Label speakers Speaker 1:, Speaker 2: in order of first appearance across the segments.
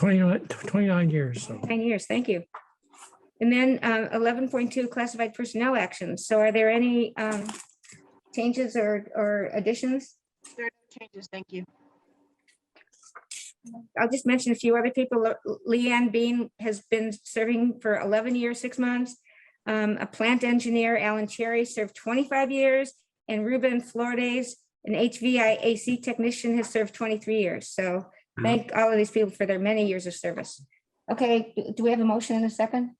Speaker 1: 29, 29 years, so.
Speaker 2: Nine years, thank you. And then uh, eleven point two, classified personnel actions. So are there any um, changes or, or additions?
Speaker 3: There are no changes, thank you.
Speaker 2: I'll just mention a few other people. Le- Leanne Bean has been serving for eleven years, six months. Um, A plant engineer, Alan Cherry, served twenty-five years, and Ruben Flores, an HVAC technician, has served twenty-three years. So thank all of these people for their many years of service. Okay, do- do we have a motion in a second?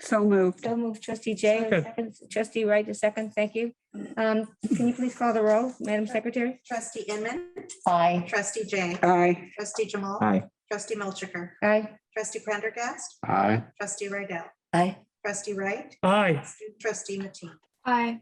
Speaker 4: So moved.
Speaker 2: So move trustee Jay,
Speaker 1: Second.
Speaker 2: second. trustee Wright, a second, thank you. Um, Can you please call the roll, Madam Secretary?
Speaker 5: Trustee Inman.
Speaker 6: Aye.
Speaker 5: Trustee Jay.
Speaker 4: Aye.
Speaker 5: Trustee Jamal.
Speaker 7: Aye.
Speaker 5: Trustee Melchiker.
Speaker 2: Aye.
Speaker 5: Trustee Prendergast.
Speaker 7: Aye.
Speaker 5: Trustee Raydell.
Speaker 6: Aye.
Speaker 5: Trustee Wright.
Speaker 1: Aye,
Speaker 5: Trustee Matee.
Speaker 2: Aye.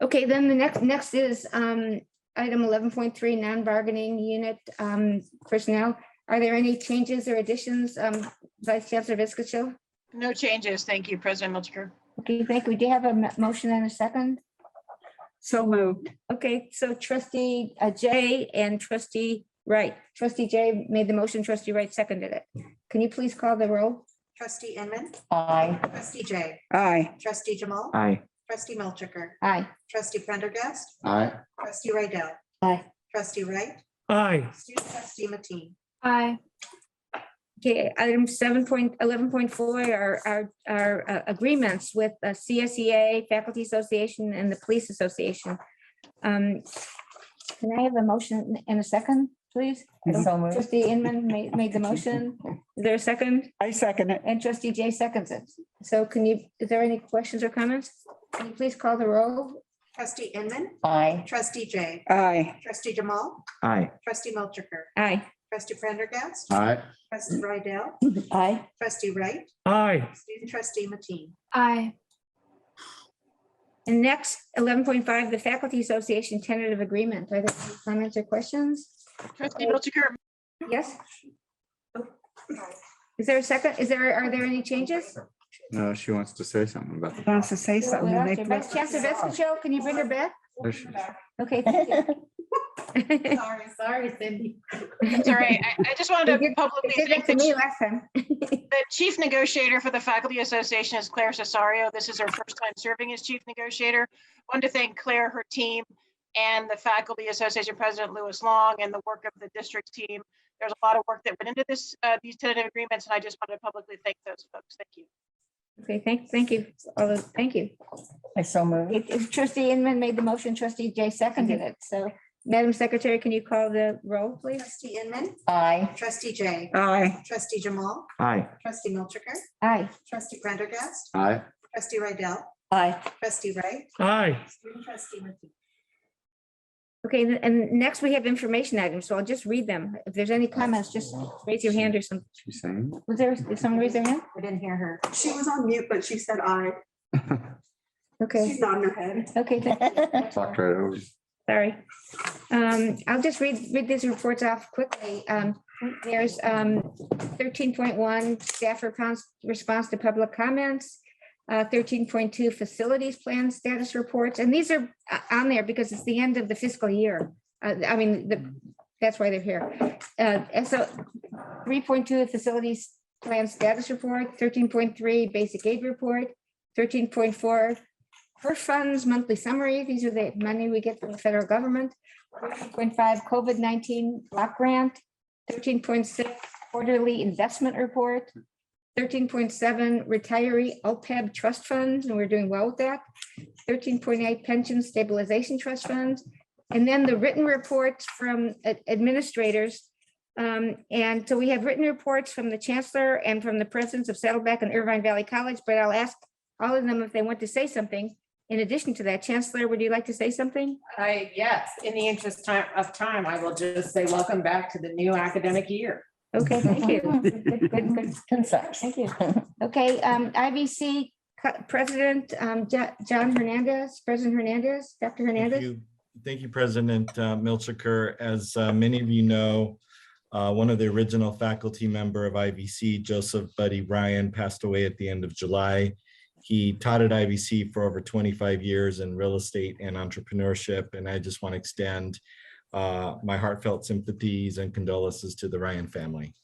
Speaker 2: Okay, then the next, next is um, item eleven point three, non-bargaining unit um, personnel. Are there any changes or additions? um, Vice Chancellor Viscacho?
Speaker 3: No changes, thank you, President Milchker.
Speaker 2: Okay, thank you. Do you have a mo- motion and a second?
Speaker 4: So moved.
Speaker 2: Okay, so trustee uh, Jay and trustee Wright. Trustee Jay made the motion, trustee Wright seconded it. Can you please call the roll?
Speaker 5: Trustee Inman.
Speaker 6: Aye.
Speaker 5: Trustee Jay.
Speaker 4: Aye.
Speaker 5: Trustee Jamal.
Speaker 7: Aye.
Speaker 5: Trustee Melchiker.
Speaker 2: Aye.
Speaker 5: Trustee Prendergast.
Speaker 7: Aye.
Speaker 5: Trustee Raydell.
Speaker 6: Aye.
Speaker 5: Trustee Wright.
Speaker 1: aye,
Speaker 5: Trustee Matee.
Speaker 3: Aye.
Speaker 2: Okay, item seven point, eleven point four are, are, are uh, agreements with uh, CSEA, Faculty Association, and the Police Association. Um, Can I have a motion in a second, please?
Speaker 6: So moved.
Speaker 2: Trustee Inman made, made the motion. Is there a second?
Speaker 4: I second it.
Speaker 2: And trustee Jay seconds it. So can you, is there any questions or comments? Can you please call the roll?
Speaker 5: Trustee Inman.
Speaker 6: Aye.
Speaker 5: Trustee Jay.
Speaker 4: Aye.
Speaker 5: Trustee Jamal.
Speaker 7: Aye.
Speaker 5: Trustee Melchiker.
Speaker 2: Aye.
Speaker 5: Trustee Prendergast.
Speaker 7: Aye.
Speaker 5: Trustee Raydell.
Speaker 6: Aye.
Speaker 5: Trustee Wright.
Speaker 1: aye,
Speaker 5: Trustee Matee.
Speaker 3: Aye.
Speaker 2: And next, eleven point five, the Faculty Association tentative agreement. Are there any comments or questions?
Speaker 3: Trustee Milchker,
Speaker 2: Yes? Is there a second? Is there, are there any changes?
Speaker 7: No, Uh, she wants to say something about
Speaker 4: She Wants to say something. and they-
Speaker 2: Vice Chancellor Vescacho, can you bring her back?
Speaker 7: There she is.
Speaker 2: Okay. thank you.
Speaker 5: Sorry, sorry, Cindy.
Speaker 3: I'm sorry, I, I just wanted
Speaker 2: You
Speaker 3: to
Speaker 2: did-
Speaker 3: publicly
Speaker 2: Did that
Speaker 3: thank
Speaker 2: to
Speaker 3: the
Speaker 2: me
Speaker 3: ch-
Speaker 2: last time.
Speaker 3: the chief negotiator for the Faculty Association is Claire Cesario. This is her first time serving as chief negotiator. Wanted to thank Claire, her team, and the Faculty Association President Lewis Long and the work of the district team. There's a lot of work that went into this, uh, these tentative agreements, and I just wanted to publicly thank those folks. Thank you.
Speaker 2: Okay, thank, thank you. All those, thank you.
Speaker 6: I so moved.
Speaker 2: If- If trustee Inman made the motion, trustee Jay seconded it. So Madam Secretary, can you call the roll, please?
Speaker 5: Trustee Inman.
Speaker 6: Aye.
Speaker 5: Trustee Jay.
Speaker 4: Aye.
Speaker 5: Trustee Jamal.
Speaker 7: Aye.
Speaker 5: Trustee Milchiker.
Speaker 2: Aye.
Speaker 5: Trustee Prendergast.
Speaker 7: Aye.
Speaker 5: Trustee Rydell.
Speaker 6: Aye.
Speaker 5: Trustee Wright.
Speaker 1: aye,
Speaker 5: and Trustee Matee.
Speaker 2: Okay, and- and next we have information items, so I'll just read them. If there's any comments, just raise your hand or something.
Speaker 7: She's saying.
Speaker 2: Was there, did someone raise their hand?
Speaker 5: I didn't hear her.
Speaker 8: She was on mute, but she said I.
Speaker 2: Okay,
Speaker 8: She's nodding her head.
Speaker 2: okay, thank
Speaker 7: Talked right over. you.
Speaker 2: Sorry. Um, I'll just read, read these reports off quickly. Um, there's, um, thirteen point one staff response, response to public comments. Uh, thirteen point two facilities plan status reports, and these are uh, on there because it's the end of the fiscal year. Uh, I mean, the, that's why they're here. Uh, and so three point two facilities plan status report, thirteen point three basic aid report, thirteen point four her funds monthly summary, these are the money we get from the federal government. Point five, COVID nineteen block grant, thirteen point six quarterly investment report, thirteen point seven retiree OPEB trust funds, and we're doing well with that. Thirteen point eight pension stabilization trust funds, and then the written reports from ad- administrators. Um, and so we have written reports from the chancellor and from the presidents of Saddleback and Irvine Valley College, but I'll ask all of them if they want to say something. In addition to that, Chancellor, would you like to say something?
Speaker 9: I, yes, in the interest ti- of time, I will just say welcome back to the new academic year.
Speaker 2: Okay, thank you. Good, good, good.
Speaker 6: Concise. Thank you.
Speaker 2: Okay, um, IBC co- President, um, Jo- John Hernandez, President Hernandez, Dr.
Speaker 10: Thank
Speaker 2: Hernandez.
Speaker 10: you. Thank you, President uh, Milchiker. As uh, many of you know, uh, one of the original faculty member of IVC, Joseph Buddy Ryan, passed away at the end of July. He taught at IVC for over 25 years in real estate and entrepreneurship, and I just want to extend uh, my heartfelt sympathies and condolences to the Ryan family.